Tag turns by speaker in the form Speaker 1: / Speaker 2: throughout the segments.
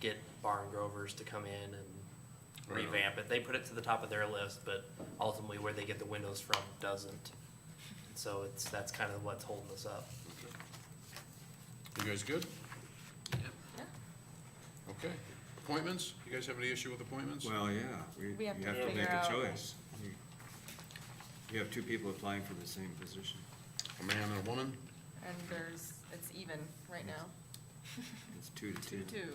Speaker 1: get barn grovers to come in and
Speaker 2: Right on.
Speaker 1: revamp it. They put it to the top of their list, but ultimately where they get the windows from doesn't. So it's, that's kind of what's holding us up.
Speaker 2: You guys good?
Speaker 3: Yeah.
Speaker 2: Okay. Appointments? You guys have any issue with appointments?
Speaker 4: Well, yeah, we,
Speaker 3: We
Speaker 4: you
Speaker 3: have
Speaker 4: have
Speaker 3: to
Speaker 4: to
Speaker 3: figure
Speaker 4: make a
Speaker 3: out-
Speaker 4: choice. You- You have two people applying for the same position.
Speaker 2: A man and a woman?
Speaker 3: And there's, it's even right now,
Speaker 4: It's two to
Speaker 3: two,
Speaker 4: two.
Speaker 3: two.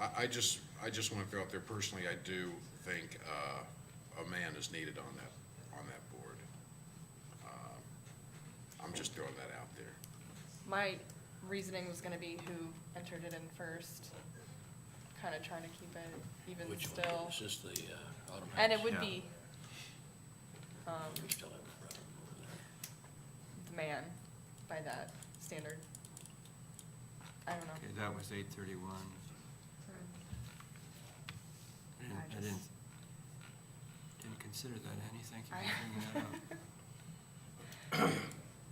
Speaker 2: I, I just, I just want to throw out there personally, I do think, uh, a man is needed on that, on that board. Um, I'm just throwing that out there.
Speaker 3: My reasoning was gonna be who entered it in first, kinda trying to keep it even
Speaker 5: Which one?
Speaker 3: still.
Speaker 5: Is this the uh, automatic?
Speaker 3: And it would
Speaker 4: Yeah.
Speaker 3: be, um,
Speaker 5: We still have a problem over there.
Speaker 3: the man by that standard. I don't know.
Speaker 4: Okay, that was eight thirty-one. I didn't,
Speaker 3: I
Speaker 4: I
Speaker 3: just-
Speaker 4: didn't, didn't consider that any, thank you
Speaker 3: I-
Speaker 4: for bringing that up.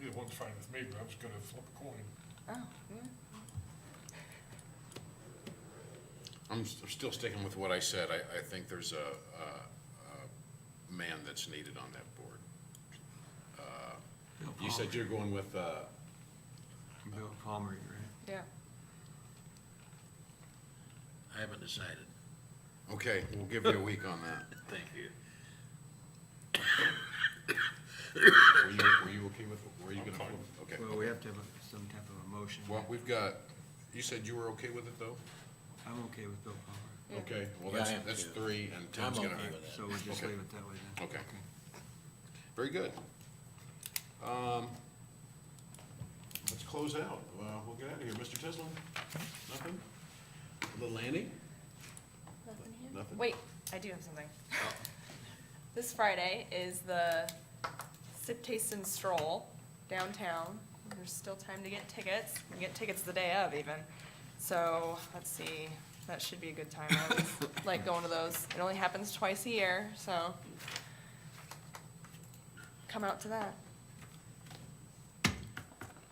Speaker 6: Either one's fine with me, but I was gonna flip a coin.
Speaker 3: Oh, yeah.
Speaker 2: I'm s- still sticking with what I said. I, I think there's a, a, a man that's needed on that board. Uh,
Speaker 4: Bill
Speaker 2: You said
Speaker 4: Palmer.
Speaker 2: you're going with, uh,
Speaker 4: Bill Palmer, right?
Speaker 3: Yeah,
Speaker 5: I haven't decided.
Speaker 2: okay, we'll give you a week on that.
Speaker 5: Thank you.
Speaker 2: Were you, were you okay with, were you
Speaker 6: I'm
Speaker 2: gonna,
Speaker 6: fine.
Speaker 2: okay.
Speaker 4: Well, we have to have a- some type of a motion.
Speaker 2: Well, we've got, you said you were okay with it though?
Speaker 4: I'm okay with Bill Palmer.
Speaker 3: Yeah.
Speaker 2: Okay, well,
Speaker 5: Yeah, I
Speaker 2: that's,
Speaker 5: am
Speaker 2: that's
Speaker 5: too.
Speaker 2: three and Tim's
Speaker 5: I'm
Speaker 2: gonna.
Speaker 5: okay with that.
Speaker 4: So we'll just
Speaker 2: Okay.
Speaker 4: leave it that way then.
Speaker 2: Okay. Very good. Um, Let's close out. Well, We'll get out of here. Mr. Tisland? Nothing? Little Annie?
Speaker 3: Nothing here?
Speaker 2: Nothing?
Speaker 3: Wait, I do have something. This Friday is the Sip Taste and Stroll downtown. There's still time to get tickets. You can get tickets the day of even. So, let's see, that should be a good time. I always like going to those. It only happens twice a year, so come out to that.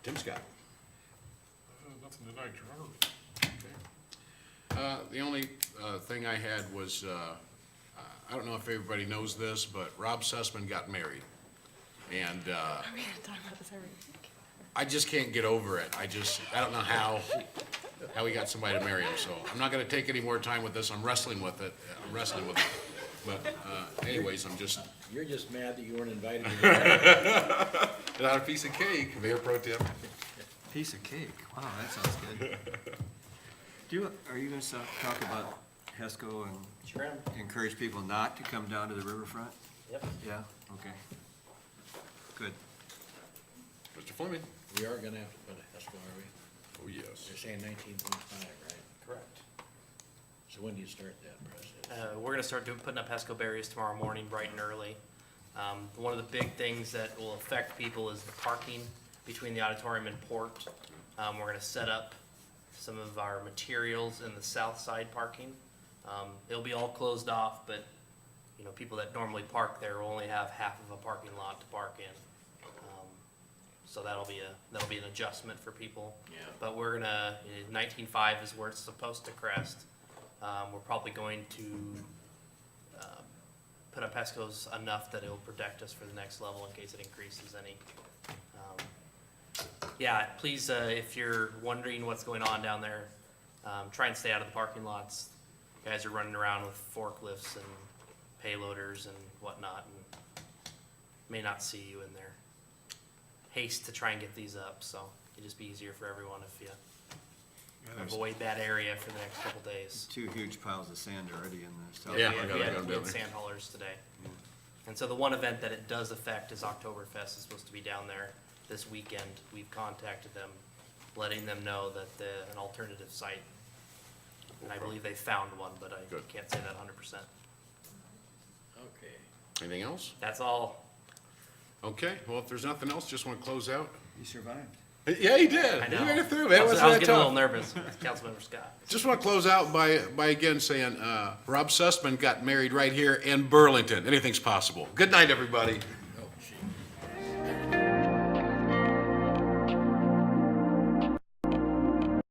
Speaker 2: Tim Scott?
Speaker 6: Uh, Nothing tonight, you're on.
Speaker 2: Uh, The only uh, thing I had was, uh, I don't know if everybody knows this, but Rob Sussman got married. And uh,
Speaker 3: Are we gonna talk about this every week?
Speaker 2: I just can't get over it. I just, I don't know how, how he got somebody to marry him, so I'm not gonna take any more time with this. I'm wrestling with it. I'm wrestling with it. But uh, anyways, I'm just,
Speaker 5: You're just mad that you weren't invited to the
Speaker 2: Not a piece of cake, Mayor Pro Tem.
Speaker 4: Piece of cake, wow, that sounds good. Do, you- are you gonna so- talk about HESCO and
Speaker 1: Sure am.
Speaker 4: encourage people not to come down to the riverfront?
Speaker 1: Yep.
Speaker 4: Yeah, okay. Good.
Speaker 2: Mr. Fleming?
Speaker 5: We are gonna have to put a HESCO, are we?
Speaker 2: Oh, yes.
Speaker 5: They're saying nineteen point five, right?
Speaker 1: Correct.
Speaker 5: So when do you start that process?
Speaker 1: Uh, we're gonna start doing, putting up pesco barriers tomorrow morning, bright and early. Um, one of the big things that will affect people is the parking between the auditorium and port. Um, we're gonna set up some of our materials in the south side parking. Um, it'll be all closed off, but, you know, people that normally park there will only have half of a parking lot to park in. Um, So that'll be a, that'll be an adjustment for people.
Speaker 5: Yeah.
Speaker 1: But we're gonna, nineteen-five is where it's supposed to crest. Um, we're probably going to, um, put up pescos enough that it'll protect us for the next level in case it increases any. Um, Yeah, please, uh, if you're wondering what's going on down there, um, try and stay out of the parking lots. Guys are running around with forklifts and payloaders and whatnot and may not see you in their haste to try and get these up, so it'd just be easier for everyone if you
Speaker 4: there's-
Speaker 1: avoid that area for the next couple days.
Speaker 4: Two huge piles of sand already in the south.
Speaker 2: Yeah,
Speaker 1: We
Speaker 2: I
Speaker 1: had-
Speaker 2: gotta
Speaker 1: we
Speaker 2: go
Speaker 1: had, we
Speaker 2: down
Speaker 1: had
Speaker 2: there. Mm.
Speaker 1: sand haulers today. And so the one event that it does affect is Oktoberfest is supposed to be down there this weekend. We've contacted them, letting them know that the, an alternative site. And I believe they found one, but I
Speaker 2: Good.
Speaker 1: can't say that hundred percent.
Speaker 5: Okay.
Speaker 2: Anything else?
Speaker 1: That's all.
Speaker 2: Okay, well, if there's nothing else, just want to close out.
Speaker 4: You survived.
Speaker 2: Yeah, he did.
Speaker 1: I
Speaker 2: He
Speaker 1: know.
Speaker 2: made it through,
Speaker 1: I
Speaker 2: man.
Speaker 1: was
Speaker 2: Wasn't
Speaker 1: I was
Speaker 2: that
Speaker 1: getting a little
Speaker 2: tough?
Speaker 1: nervous, Councilmember Scott.
Speaker 2: Just want to close out by, by again saying, uh, Rob Sussman got married right here in Burlington. Anything's possible. Good night, everybody.
Speaker 5: Oh,